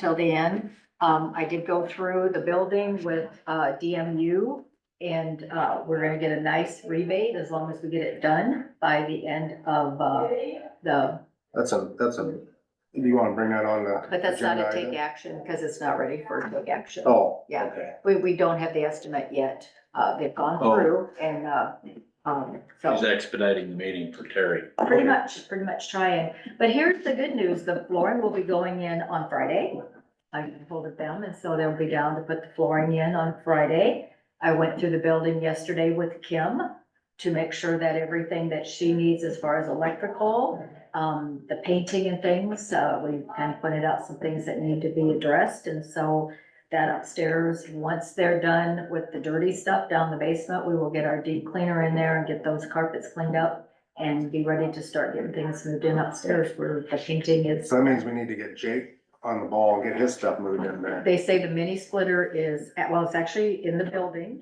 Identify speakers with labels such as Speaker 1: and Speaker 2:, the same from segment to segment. Speaker 1: till the end. Um, I did go through the building with, uh, DMU and, uh, we're gonna get a nice rebate as long as we get it done by the end of, uh, the,
Speaker 2: That's a, that's a, do you wanna bring that on the?
Speaker 1: but that's not a
Speaker 2: agenda
Speaker 1: take
Speaker 2: item?
Speaker 1: action because it's not ready for take action.
Speaker 2: Oh,
Speaker 1: Yeah.
Speaker 2: okay.
Speaker 1: We, we don't have the estimate yet. Uh, they've gone
Speaker 3: Oh.
Speaker 1: through and, uh, um, so.
Speaker 3: He's expediting the meeting for Terry.
Speaker 1: Pretty much, pretty much trying. But here's the good news, the flooring will be going in on Friday. I told them, and so they'll be down to put the flooring in on Friday. I went through the building yesterday with Kim to make sure that everything that she needs as far as electrical, um, the painting and things, uh, we kind of pointed out some things that need to be addressed, and so that upstairs, once they're done with the dirty stuff down the basement, we will get our deep cleaner in there and get those carpets cleaned up and be ready to start getting things moved in upstairs where the painting is.
Speaker 2: So that means we need to get Jake on the ball and get his stuff moved in there.
Speaker 1: They say the mini splitter is, at- well, it's actually in the building.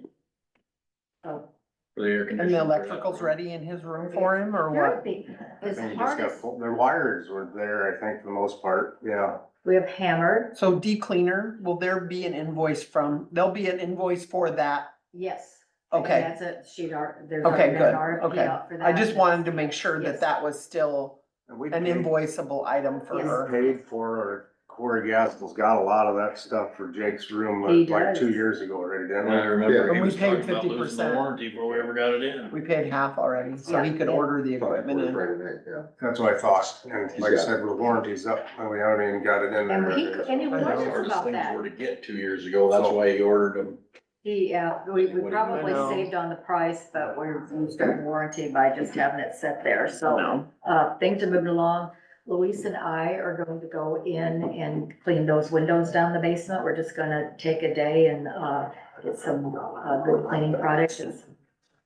Speaker 1: So,
Speaker 3: for the air
Speaker 4: And the
Speaker 3: conditioning.
Speaker 4: electrical's ready in his room for him or
Speaker 1: As
Speaker 2: I
Speaker 4: what?
Speaker 2: think he just
Speaker 1: hard
Speaker 2: got
Speaker 1: as,
Speaker 2: full- Their wires were there, I think, for the most part, yeah.
Speaker 1: we have hammered,
Speaker 4: So deep cleaner, will there be an invoice from, there'll be an invoice for that?
Speaker 1: yes. And
Speaker 4: Okay,
Speaker 1: That's a sheet art, there's
Speaker 4: Okay,
Speaker 1: already been an
Speaker 4: good,
Speaker 1: RFP
Speaker 4: okay.
Speaker 1: out for that.
Speaker 4: I just wanted to make sure
Speaker 1: Yes.
Speaker 4: that that was still
Speaker 2: And we
Speaker 4: an
Speaker 2: paid-
Speaker 4: invoiceable item for
Speaker 1: Yes.
Speaker 2: we
Speaker 4: her.
Speaker 2: Paid for, or Corey Gaskell's got a lot of that stuff for Jake's room
Speaker 1: He
Speaker 2: like like two
Speaker 1: does.
Speaker 2: years ago already,
Speaker 3: And
Speaker 2: didn't
Speaker 3: I
Speaker 2: we?
Speaker 3: remember he
Speaker 4: And we
Speaker 3: was
Speaker 4: paid
Speaker 3: talking about losing the
Speaker 4: 50%.
Speaker 3: warranty before we ever got it in.
Speaker 4: We paid half already, so he
Speaker 1: Yeah.
Speaker 4: could order the equipment in.
Speaker 2: That's what I thought, and
Speaker 5: He's
Speaker 2: like I
Speaker 5: got it.
Speaker 2: said, with warranties up, and we haven't even got it in
Speaker 1: And
Speaker 2: there.
Speaker 1: he, and he
Speaker 3: I know,
Speaker 4: wonders
Speaker 3: the
Speaker 1: warned us
Speaker 3: hardest
Speaker 1: about
Speaker 3: things
Speaker 1: that.
Speaker 3: were to get two years ago, that's why he ordered them.
Speaker 1: He, uh, we,
Speaker 3: What do
Speaker 1: we
Speaker 3: you
Speaker 1: probably
Speaker 4: know?
Speaker 1: saved on the price, but we're, we're starting warranty by just having it set there, so.
Speaker 4: No.
Speaker 1: uh, things are moving along. Luis and I are going to go in and clean those windows down the basement. We're just gonna take a day and, uh, get some, uh, good cleaning products. It's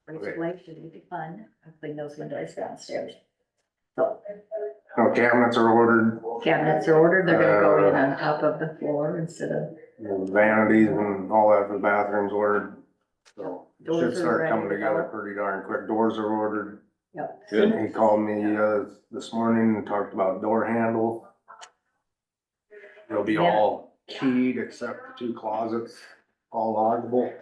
Speaker 1: pretty late, should be fun. I'll Clean those windows downstairs. So
Speaker 2: No cabinets are ordered,
Speaker 1: cabinets are ordered. They're gonna go in
Speaker 2: Uh.
Speaker 1: on top of the floor instead of,
Speaker 2: and vanities and all that for the bathrooms ordered. So, it should
Speaker 1: Doors are
Speaker 2: start
Speaker 1: ready
Speaker 2: coming
Speaker 1: to
Speaker 2: together
Speaker 1: go.
Speaker 2: pretty darn quick, doors are ordered.
Speaker 1: yep.
Speaker 3: Good.
Speaker 2: He called me, uh, this morning and talked about door handle. They'll be
Speaker 1: Yeah.
Speaker 2: all keyed except the two closets, all lockable.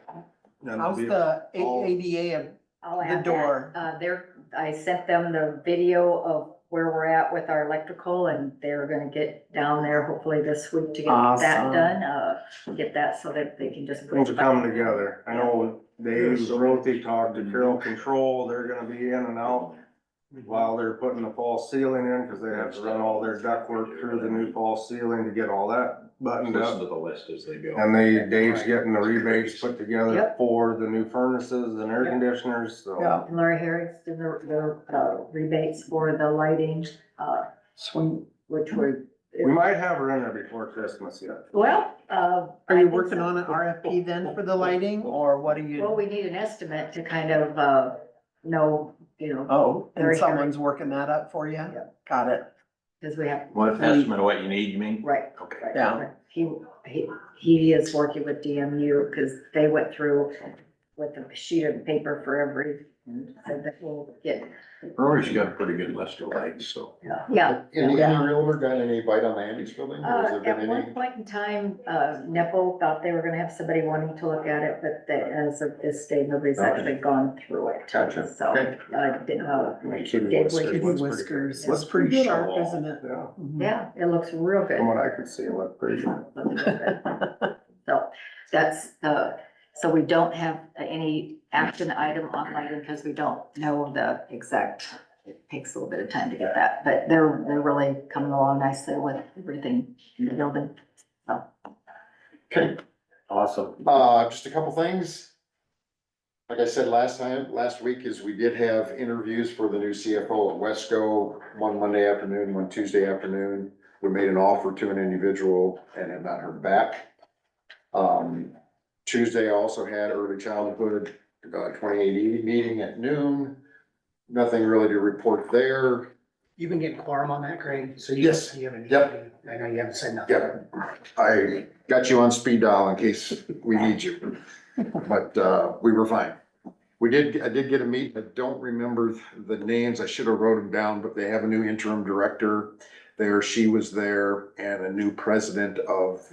Speaker 2: And
Speaker 4: How's
Speaker 2: it'll be-
Speaker 4: the A-
Speaker 2: all-
Speaker 4: ADA? of-
Speaker 1: I'll
Speaker 4: The
Speaker 1: add that.
Speaker 4: door.
Speaker 1: Uh, there, I sent them the video of where we're at with our electrical and they're gonna get down there hopefully this week to get that
Speaker 4: Awesome.
Speaker 1: done. Uh, get that so that they can just. put
Speaker 2: Things are
Speaker 1: it back.
Speaker 2: coming together. I know Dave
Speaker 3: Yeah.
Speaker 2: Rothie talked to Carroll Control, they're gonna be in and out while they're putting the false ceiling in, cause they have to run all their ductwork through the new false ceiling to get all that buttoned
Speaker 3: Listen
Speaker 2: up.
Speaker 3: to the list as they go.
Speaker 2: And they, Dave's getting the rebates put together
Speaker 1: Yep.
Speaker 2: for the new furnaces and air conditioners, so.
Speaker 4: Yeah.
Speaker 1: And Laura Harris did the, the uh, rebates for the lighting, uh,
Speaker 4: Sweet.
Speaker 1: which were,
Speaker 2: We might have her in there before Christmas yet.
Speaker 1: well, uh. I
Speaker 4: Are you
Speaker 1: think
Speaker 4: working
Speaker 1: so.
Speaker 4: on an RFP then for the lighting or what are
Speaker 1: Well,
Speaker 4: you?
Speaker 1: we need an estimate to kind of, uh, know, you know,
Speaker 4: Oh,
Speaker 1: Very hairy.
Speaker 4: and someone's working that up for you?
Speaker 1: Yeah.
Speaker 4: Got it.
Speaker 1: because we have,
Speaker 3: What estimate of what you need, you mean?
Speaker 1: right,
Speaker 3: Okay.
Speaker 1: Right,
Speaker 4: Yeah.
Speaker 1: right. He, he, he is working with DMU because they went through with a sheet of paper for every, and said that we'll get,
Speaker 3: Rory's got a pretty good list of lights, so.
Speaker 1: yeah.
Speaker 5: Any, any
Speaker 4: Yeah.
Speaker 5: realtor got any bite on the Andy's building? or
Speaker 1: Uh,
Speaker 5: Has there
Speaker 1: at
Speaker 5: been any?
Speaker 1: one point in time, uh, Nipple thought they were gonna have somebody wanting to look at it, but they, as of this day, nobody's
Speaker 5: Okay.
Speaker 1: actually gone through it.
Speaker 5: Gotcha.
Speaker 1: So,
Speaker 5: Okay.
Speaker 1: uh, did- uh,
Speaker 2: My kitty
Speaker 1: Dave
Speaker 2: whiskers
Speaker 1: Whiskers.
Speaker 4: Kitty
Speaker 2: looks pretty-
Speaker 4: whiskers.
Speaker 2: looks
Speaker 4: is
Speaker 2: pretty
Speaker 4: good
Speaker 2: sharp.
Speaker 4: art, Isn't it?
Speaker 2: Yeah,
Speaker 4: Mhm.
Speaker 1: yeah, it looks real good.
Speaker 2: from what I could see, it looked pretty good.
Speaker 1: So that's, uh, so we don't have any action item on lighting because we don't know the exact. It takes a little bit of time to get that, but they're, they're really coming along nicely with everything in the building.
Speaker 5: Okay,
Speaker 2: Awesome.
Speaker 5: uh, just a couple things. Like I said last time, last week is we did have interviews for the new CFO at Wesco, one Monday afternoon, one Tuesday afternoon. We made an offer to an individual and have not heard back. Um, Tuesday I also had early childhood, uh, twenty eighty meeting at noon. Nothing really to report there.
Speaker 6: You've been getting quorum on that, Craig, so you.
Speaker 5: Yes.
Speaker 6: you haven't-
Speaker 5: Yep.
Speaker 6: I know you haven't said nothing.
Speaker 5: Yeah, I got you on speed dial in case we need you, but, uh, we were fine. We did, I did get a meet, I don't remember the names, I should have wrote them down, but they have a new interim director. there, she was there, and a new president of